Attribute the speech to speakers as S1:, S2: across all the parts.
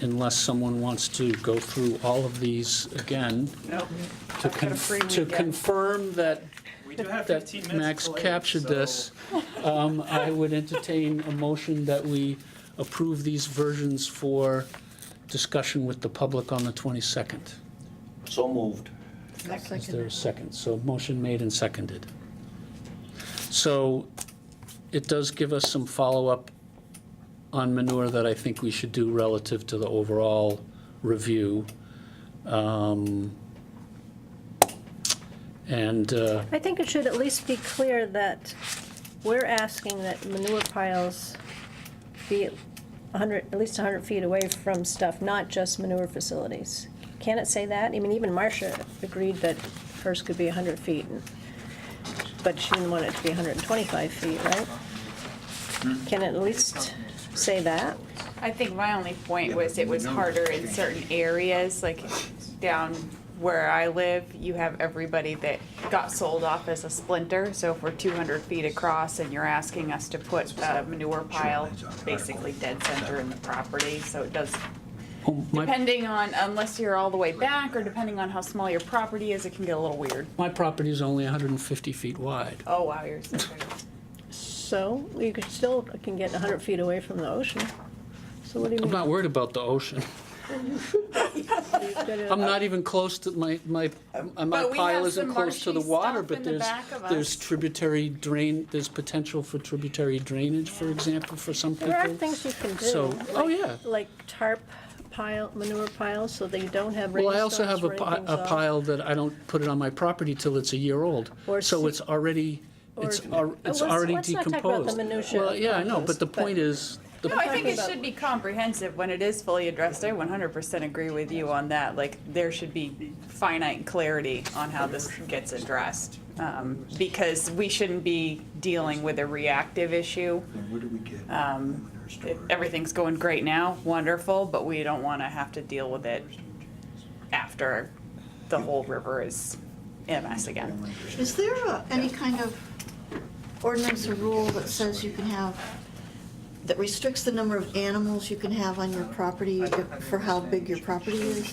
S1: unless someone wants to go through all of these again
S2: Nope.
S1: to
S2: I've got a
S1: con-
S2: free
S1: to
S2: weekend.
S1: confirm that
S3: We do have
S1: that
S3: 15 minutes.
S1: Max
S3: till eight,
S1: captured
S3: so
S1: this, um, I would entertain a motion that we approve these versions for discussion with the public on the 22nd.
S4: So moved.
S1: Is there a second? So motion made and seconded. So it does give us some follow-up on manure that I think we should do relative to the overall review. Um, And uh,
S5: I think it should at least be clear that we're asking that manure piles be 100, at least 100 feet away from stuff, not just manure facilities. Can it say that? I mean, even Marcia agreed that hers could be 100 feet, and- but she didn't want it to be 125 feet, right? Can it at least say that?
S6: I think my only point was it was harder in certain areas, like down where I live, you have everybody that got sold off as a splinter. So if we're two hundred feet across and you're asking us to put a manure pile basically dead center in the property, so it does,
S1: oh, my
S6: depending on, unless you're all the way back or depending on how small your property is, it can get a little weird.
S1: my property is only 150 feet wide.
S6: Oh, wow, you're so good.
S5: So, you could still, can get 100 feet away from the ocean. So what do you
S1: I'm
S5: mean?
S1: not worried about the ocean.
S5: You've got to-
S1: I'm not even close to, my, my, my
S6: Uh, But we
S1: pile
S6: have
S1: isn't
S6: some
S1: close to the
S6: marshy
S1: water,
S6: stuff
S1: but
S6: in the
S1: there's,
S6: back of
S1: there's
S6: us.
S1: tributary drain, there's potential for tributary drainage, for example, for some people.
S5: There are things you can do.
S1: So- oh,
S5: like-
S1: yeah.
S5: Like tarp pile, manure piles, so that you don't have
S1: Well,
S5: rainstorms
S1: I also have a pi-
S5: running
S1: a
S5: things off.
S1: pile that I don't put it on my property till it's a year old,
S5: Or
S1: so
S5: se-
S1: it's already, it's,
S5: or- uh,
S1: al- it's
S5: let's-
S1: already
S5: let's not talk about the
S1: decomposed.
S5: minutiae
S1: Well, yeah, I know,
S5: of
S1: but the
S5: this, but-
S1: point is, the
S6: No, I think it
S5: about-
S6: should be comprehensive when it is fully addressed. I one hundred percent agree with you on that. Like, there should be finite clarity on how this gets addressed. Um, because we shouldn't be dealing with a reactive issue.
S4: Where do we get?
S6: Um, if everything's going great now, wonderful, but we don't wanna have to deal with it after the whole river is in a mess again.
S7: Is there a- any kind of ordinance or rule that says you can have, that restricts the number of animals you can have on your property for how big your property is?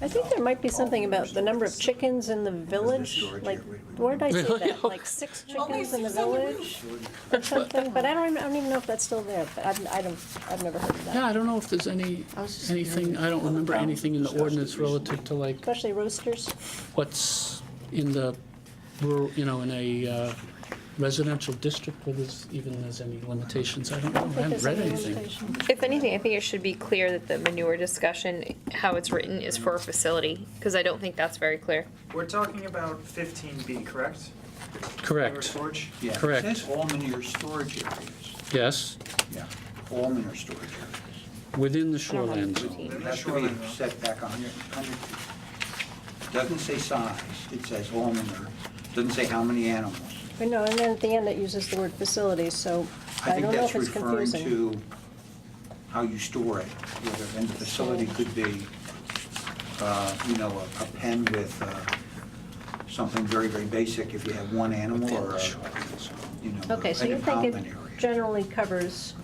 S5: I think there might be something about the number of chickens in the village, like, where did I see that? Like six chickens in the village or something, but I don't, I don't even know if that's still there, but I've, I don't, I've never heard of that.
S1: yeah, I don't know if there's any,
S7: I was just
S1: anything, I don't remember anything in the ordinance relative to like
S5: Especially roosters.
S1: what's in the rural, you know, in a uh, residential district where there's even there's any limitations, I don't know, I haven't
S5: There's
S1: read
S5: any
S1: anything.
S5: limitation.
S8: If anything, I think it should be clear that the manure discussion, how it's written, is for a facility, because I don't think that's very clear.
S3: We're talking about 15B, correct? Manure
S1: Correct,
S3: storage?
S4: Yeah,
S1: correct.
S4: It says all manure storage areas.
S1: yes,
S4: Yeah, all manure storage areas.
S1: within the
S8: I don't have
S1: shoreline
S8: the
S1: zone.
S8: routine.
S4: It has to be set back 100 100 feet. Doesn't say size, it says all manure, doesn't say how many animals.
S5: I know, and then at the end it uses the word facilities, so I
S4: I think
S5: don't know
S4: that's
S5: if it's
S4: referring
S5: confusing.
S4: to how you store it, whether, and the facility could be, uh, you know, a- a pen with uh, something very, very basic, if you have one animal
S1: Within
S4: or,
S1: the
S4: a,
S1: shoreline zone.
S4: you know,
S5: Okay, so
S4: an
S5: you think it
S4: impoundment area.
S5: generally covers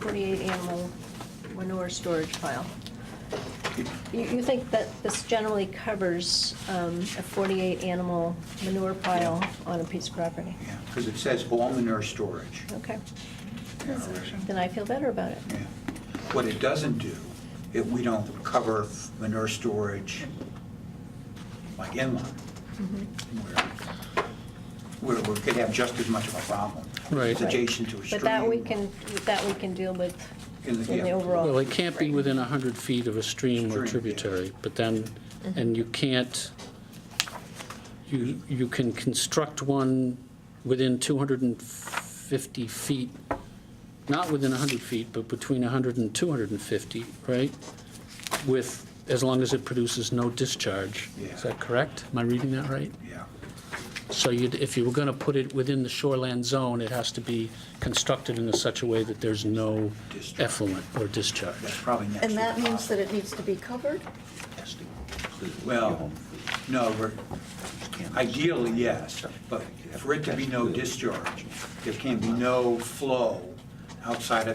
S5: 48 animal manure storage pile? You, you think that this generally covers um, a 48 animal manure pile on a piece of property?
S4: Yeah, because it says all manure storage.
S5: Okay,
S4: Yeah, right.
S5: then I feel better about it.
S4: Yeah. What it doesn't do, if we don't cover manure storage like inland,
S5: Mm-hmm.
S4: where, where we could have just as much of a problem.
S1: Right.
S4: It's adjacent to a stream.
S5: But that we can, that we can deal with
S4: In the-
S5: in the
S4: yeah.
S5: overall.
S1: Well, it can't be within 100 feet of a stream
S4: Stream,
S1: or
S4: yeah.
S1: tributary, but then, and you can't, you, you can construct one within 250 feet, not within 100 feet, but between 100 and 250, right? With, as long as it produces no discharge.
S4: Yeah.
S1: Is that correct? Am I reading that right?
S4: Yeah.
S1: So you'd, if you were going to put it within the shoreland zone, it has to be constructed in such a way that there's no
S4: Discharge.
S1: effluent or discharge.
S4: That's probably next.
S7: And
S4: to
S7: that
S4: the
S7: means that
S4: bottom.
S7: it needs to be covered?
S4: Well, no, we're, ideally, yes, but for it to be no discharge, there can be no flow outside of